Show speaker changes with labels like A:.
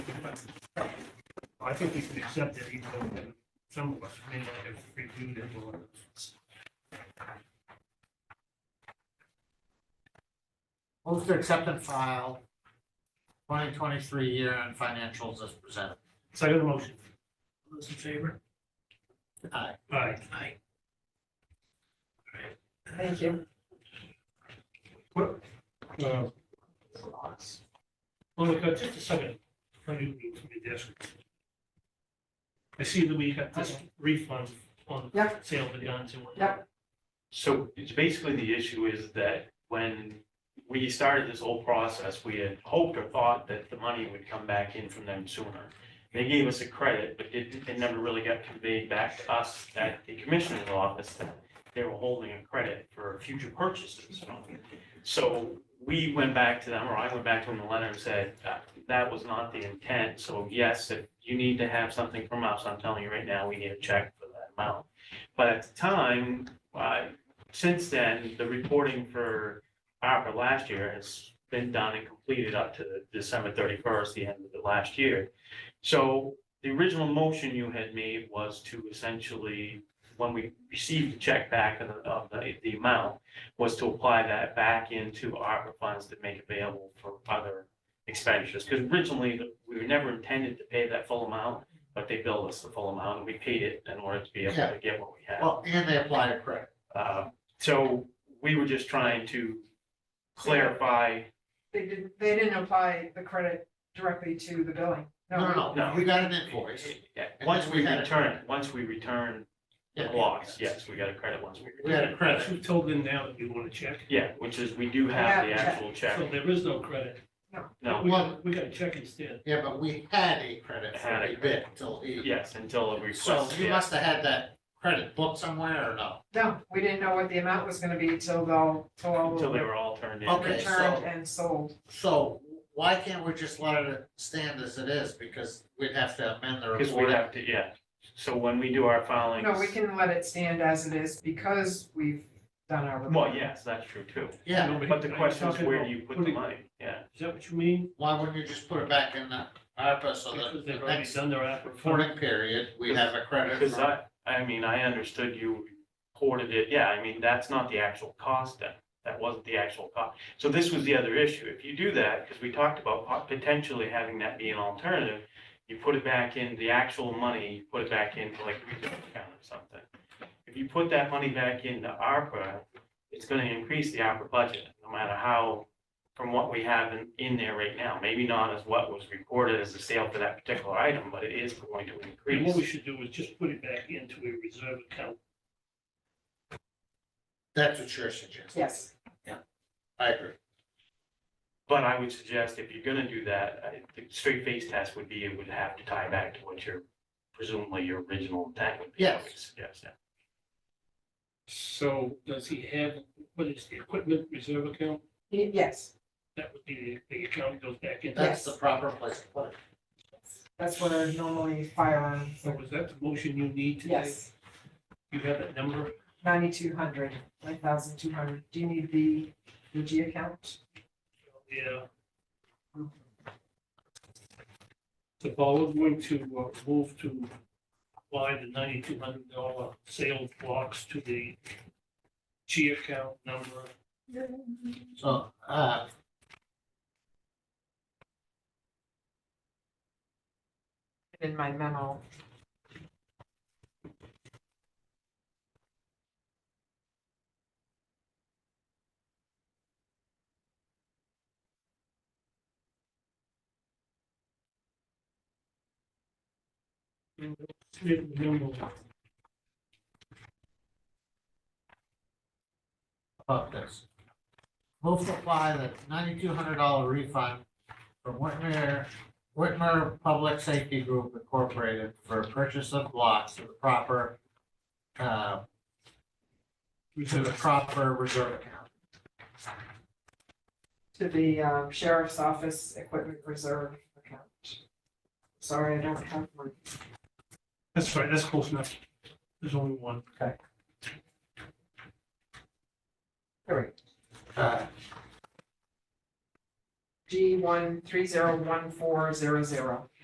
A: I think we should accept it, even though some of us may not have reviewed it. or-
B: Move to accept and file twenty twenty-three year end financials as presented.
A: Second motion. All Those in favor?
B: Aye.
A: Aye.
C: Aye.
A: Thank you. What, uh, Monica, just a second. Let me move to my desk. I see that we got this refund on the
D: Yep.
A: sale of the guns and whatnot.
D: Yep.
E: So it's basically the issue is that when we started this whole process, we had hoped or thought that the money would come back in from them sooner. They gave us a credit, but it, it never really got conveyed back to us at the commissioner's office that they were holding a credit for future purchases. So we went back to them, or I went back to them in the letter and said, uh, that was not the intent. So yes, if you need to have something from us, I'm telling you right now, we need a check for that amount. But at the time, uh, since then, the reporting for ARPA last year has been done and completed up to December thirty-first, the end of the last year. So the original motion you had made was to essentially, when we received the check back of the, of the, the amount, was to apply that back into ARPA funds to make available for other expenditures. Because originally, the- we were never intended to pay that full amount, but they billed us the full amount, and we paid it in order to be able to get what we had.
B: Well, and they applied a credit.
E: Uh, So we were just trying to clarify,
D: They didn't, they didn't apply the credit directly to the billing.
B: No, no, no,
E: No.
B: we got an invoice.
E: Yeah,
B: And
E: once
B: then
E: we
B: we had a
E: return,
B: credit.
E: once we return the
B: Yeah.
E: blocks, yes, we got a credit once we
B: We had
E: return.
B: a credit.
A: We've told them now that we want to check.
E: Yeah, which is, we do have the
D: Yeah, check.
E: actual check,
A: So there is no credit.
E: no,
A: We got, we got a check instead.
B: Yeah, but we had a credit for
E: Had a
B: a bit until he.
E: yes, until the
B: So
E: request,
B: you
E: yes.
B: must have had that credit booked somewhere or no?
D: No, we didn't know what the amount was gonna be till the, till all
E: Until they
D: were
E: were all turned in.
B: Okay, so-
D: returned and sold.
B: So why can't we just let it stand as it is? Because we'd have to amend the
E: Because we
B: report.
E: have to, yeah, so when we do our filings.
D: No, we can let it stand as it is because we've done our.
E: Well, yes, that's true too,
B: Yeah,
A: Nobody-
E: but the
A: are you
E: question is
A: talking
E: where
A: about
E: do you put the
A: putting-
E: money, yeah.
A: Is that what you mean?
B: why wouldn't you just put it back in the ARPA so
A: Because
B: that the
A: they've already
B: next
A: done their ARPA funding.
B: reporting period, we have a credit
E: Because
B: for
E: I, I mean, I understood you reported it, yeah, I mean, that's not the actual cost then. That wasn't the actual cost. So this was the other issue. If you do that, because we talked about pot- potentially having that be an alternative, you put it back in, the actual money, you put it back into like a reserve account or something. If you put that money back into ARPA, it's gonna increase the ARPA budget, no matter how, from what we have in, in there right now. Maybe not as what was reported as a sale for that particular item, but it is going to
A: And what we
E: increase.
A: should do is just put it back into a reserve account.
B: That's what you're suggesting.
D: Yes,
B: I agree.
E: But I would suggest if you're gonna do that, I, the straight face test would be, it would have to tie back to what your, presumably your original intent would be. I would suggest, yeah.
A: So does he have, what is the equipment reserve account?
D: Y- yes,
A: That would be the, the account that goes back into.
B: That's the proper place to put it.
D: that's where normally firearms,
A: So is that the motion you need today?
D: yes,
A: You have that number?
D: ninety-two hundred, nine thousand two hundred. Do you need the, the G account?
A: Yeah. So Paul, we're going to uh, move to apply the ninety-two hundred dollar sales blocks to the G account number.
B: So, uh.
D: In my memo,
B: about this. Move to apply the ninety-two hundred dollar refund from Whitmer, Whitmer Public Safety Group Incorporated for purchase of blocks to the proper, uh, to the proper reserve account.
D: to the um, sheriff's office equipment reserve account. Sorry, I don't have my
A: That's right, that's close enough. There's only one.
B: Uh,
D: G one three zero one four zero zero.